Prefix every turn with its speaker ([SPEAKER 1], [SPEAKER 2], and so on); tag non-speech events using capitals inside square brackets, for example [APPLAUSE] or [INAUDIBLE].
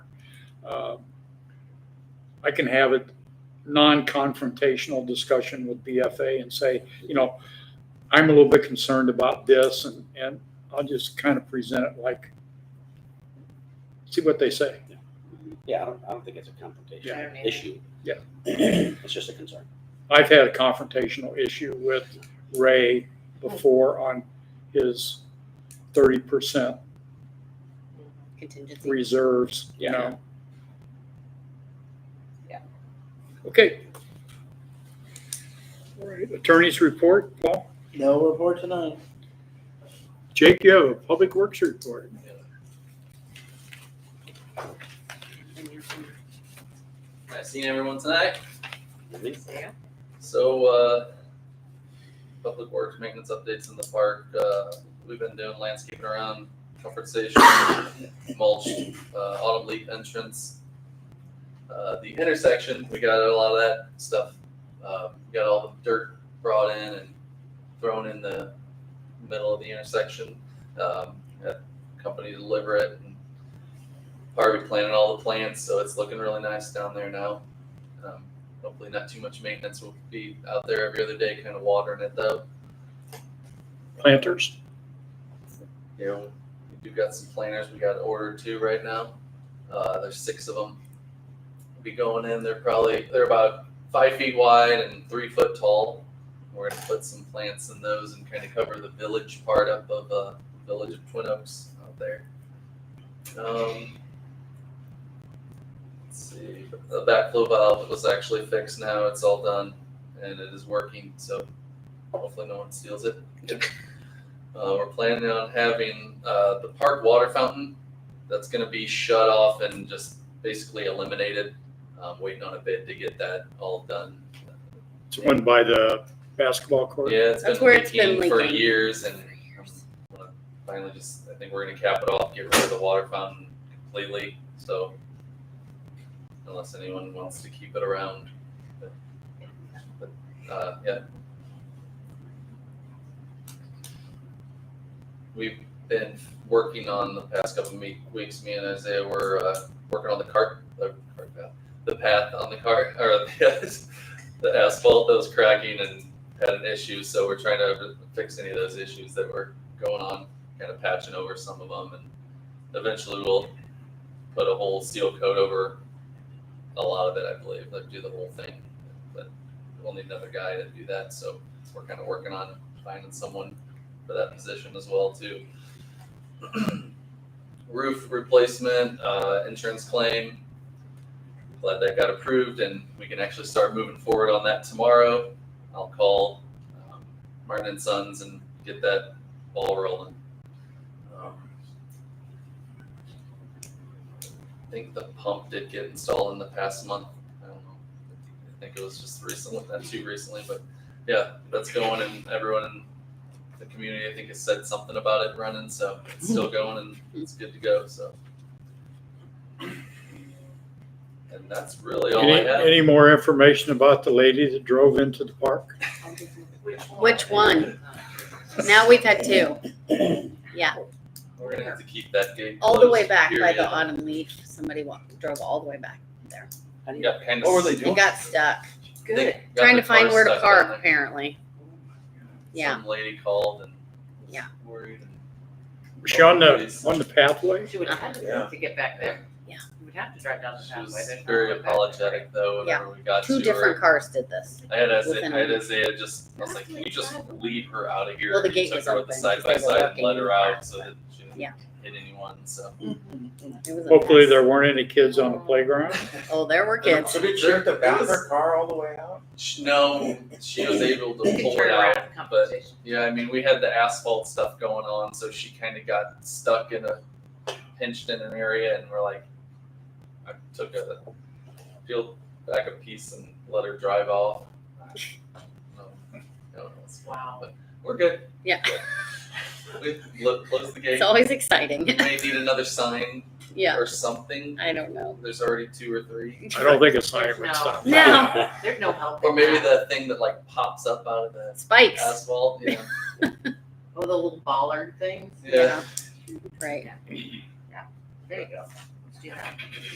[SPEAKER 1] uh, I can have a non-confrontational discussion with BFA and say, you know, I'm a little bit concerned about this and, and I'll just kind of present it like, see what they say.
[SPEAKER 2] Yeah, I don't, I don't think it's a confrontation
[SPEAKER 3] Yeah.
[SPEAKER 2] issue.
[SPEAKER 1] Yeah.
[SPEAKER 2] [CLEARS THROAT] It's just a concern.
[SPEAKER 1] I've had a confrontational issue with Ray before on his thirty percent
[SPEAKER 3] contingency.
[SPEAKER 1] reserves, you
[SPEAKER 2] Yeah.
[SPEAKER 1] know?
[SPEAKER 3] Yeah.
[SPEAKER 1] Okay. All right, attorney's report, Paul.
[SPEAKER 4] No report tonight.
[SPEAKER 1] Jake, you have a public works report.
[SPEAKER 5] I've seen everyone tonight.
[SPEAKER 2] Mhm.
[SPEAKER 3] Yeah.
[SPEAKER 5] So, uh, public works maintenance updates in the park. Uh, we've been doing landscaping around comfort station, mulch, uh, autumn leaf entrance. Uh, the intersection, we got a lot of that stuff. Uh, we got all the dirt brought in and thrown in the middle of the intersection. Um, had company deliver it and Harvey planted all the plants, so it's looking really nice down there now. Um, hopefully not too much maintenance. We'll be out there every other day, kind of watering it though.
[SPEAKER 1] Planters,
[SPEAKER 5] You know, we do got some planters we got ordered two right now. Uh, there's six of them. Be going in. They're probably they're about five feet wide and three foot tall. We're gonna put some plants in those and kind of cover the village part up of uh, village of Twin Oaks out there. Um, let's see. The backflow valve was actually fixed now. It's all done and it is working. So hopefully no one steals it. Uh, we're planning on having uh, the park water fountain that's going to be shut off and just basically eliminated. Um, waiting on a bid to get that all done.
[SPEAKER 1] it's one by the basketball court.
[SPEAKER 5] Yeah, it's
[SPEAKER 3] That's
[SPEAKER 5] been
[SPEAKER 3] where it's been
[SPEAKER 5] leaking for
[SPEAKER 3] leaking.
[SPEAKER 5] years, and uh, finally, just I think we're going to cap it off, get rid of the water fountain completely. So, unless anyone wants to keep it around, but, but, uh, yeah. We've been working on the past couple of me- weeks. Me and Isaiah were uh, working on the cart, the cart path, the path on the cart, or [LAUGHS] the, the asphalt that was cracking and had an issue. So we're trying to fix any of those issues that were going on, kind of patching over some of them, and eventually we'll put a whole steel coat over a lot of it. I believe they'll do the whole thing, but we'll need another guy to do that. So we're kind of working on finding someone for that position as well too. [CLEARS THROAT] Roof replacement, uh, insurance claim. Glad that got approved and we can actually start moving forward on that tomorrow. I'll call um, Martin and Sons and get that ball rolling. Um, I think the pump did get installed in the past month. I don't know. I think it was just recently, not too recently, but yeah, that's going and everyone in the community, I think, has said something about it running, so it's still
[SPEAKER 3] Mm.
[SPEAKER 5] going and it's good to go, so. And that's really all I
[SPEAKER 1] Any,
[SPEAKER 5] have.
[SPEAKER 1] any more information about the lady that drove into the park?
[SPEAKER 3] Which one? Now we've had two,
[SPEAKER 5] We're gonna have to keep that gate.
[SPEAKER 3] all the way
[SPEAKER 5] closed,
[SPEAKER 3] back by
[SPEAKER 5] period.
[SPEAKER 3] the autumn leaf. Somebody walked, drove all the way back there
[SPEAKER 2] How do you-
[SPEAKER 5] Got kind of.
[SPEAKER 2] What were they
[SPEAKER 3] and got stuck,
[SPEAKER 5] They got
[SPEAKER 3] trying to
[SPEAKER 5] their
[SPEAKER 3] find
[SPEAKER 5] car
[SPEAKER 3] where to
[SPEAKER 5] stuck down
[SPEAKER 3] park
[SPEAKER 5] there.
[SPEAKER 3] apparently. Yeah.
[SPEAKER 5] Some lady called and. was
[SPEAKER 3] Yeah.
[SPEAKER 5] Worried. and-
[SPEAKER 1] Was she on the, on the pathway?
[SPEAKER 6] She would have
[SPEAKER 2] Yeah.
[SPEAKER 6] to, to get back there.
[SPEAKER 3] Yeah.
[SPEAKER 6] You would have to drive down the
[SPEAKER 5] She
[SPEAKER 6] pathway.
[SPEAKER 5] was
[SPEAKER 6] There's no
[SPEAKER 5] very
[SPEAKER 6] way back.
[SPEAKER 5] apologetic though, whenever we got to her.
[SPEAKER 3] Two different cars did this.
[SPEAKER 5] I had Isaiah,
[SPEAKER 3] within
[SPEAKER 5] I had
[SPEAKER 3] a-
[SPEAKER 5] Isaiah just, I was like, can you just leave her out of here?
[SPEAKER 3] Well, the
[SPEAKER 5] And
[SPEAKER 3] gate
[SPEAKER 5] took
[SPEAKER 3] was
[SPEAKER 5] her with
[SPEAKER 3] open,
[SPEAKER 5] the Side by
[SPEAKER 3] because they were
[SPEAKER 5] side,
[SPEAKER 3] working
[SPEAKER 5] let her
[SPEAKER 3] in
[SPEAKER 5] out
[SPEAKER 3] front,
[SPEAKER 5] so that she didn't
[SPEAKER 3] Yeah.
[SPEAKER 5] hit anyone, so.
[SPEAKER 3] It was a
[SPEAKER 1] Hopefully
[SPEAKER 3] mess.
[SPEAKER 1] there weren't any kids on the playground.
[SPEAKER 3] Oh, there were kids.
[SPEAKER 4] So did she have to bounce her car all the way out?
[SPEAKER 5] She- No, she was able to
[SPEAKER 6] Turn
[SPEAKER 5] pull it
[SPEAKER 6] around
[SPEAKER 5] out,
[SPEAKER 6] the
[SPEAKER 5] but
[SPEAKER 6] conversation.
[SPEAKER 5] Yeah, I mean, we had the asphalt stuff going on, so she kind of got stuck in a pinched in an area, and we're like, I took a peeled back a piece and let her drive off. No, no, it's-
[SPEAKER 6] Wow.
[SPEAKER 5] We're good.
[SPEAKER 3] Yeah.
[SPEAKER 5] We lo- closed the gate.
[SPEAKER 3] It's always
[SPEAKER 5] We
[SPEAKER 3] exciting. [LAUGHS]
[SPEAKER 5] may need another sign
[SPEAKER 3] Yeah,
[SPEAKER 5] or something.
[SPEAKER 3] I don't know.
[SPEAKER 5] There's already two or
[SPEAKER 3] [LAUGHS]
[SPEAKER 5] three.
[SPEAKER 1] I don't think it's not even
[SPEAKER 6] No.
[SPEAKER 1] stopped.
[SPEAKER 2] [LAUGHS]
[SPEAKER 3] No.
[SPEAKER 6] There's no help.
[SPEAKER 5] Or
[SPEAKER 6] in
[SPEAKER 5] maybe
[SPEAKER 6] that.
[SPEAKER 5] the thing that like pops up out of the
[SPEAKER 3] Spikes.
[SPEAKER 5] asphalt.
[SPEAKER 3] [LAUGHS]
[SPEAKER 5] Yeah.
[SPEAKER 6] Oh, the little baller things.
[SPEAKER 5] Yeah.
[SPEAKER 3] Right.
[SPEAKER 6] There you go. Yeah.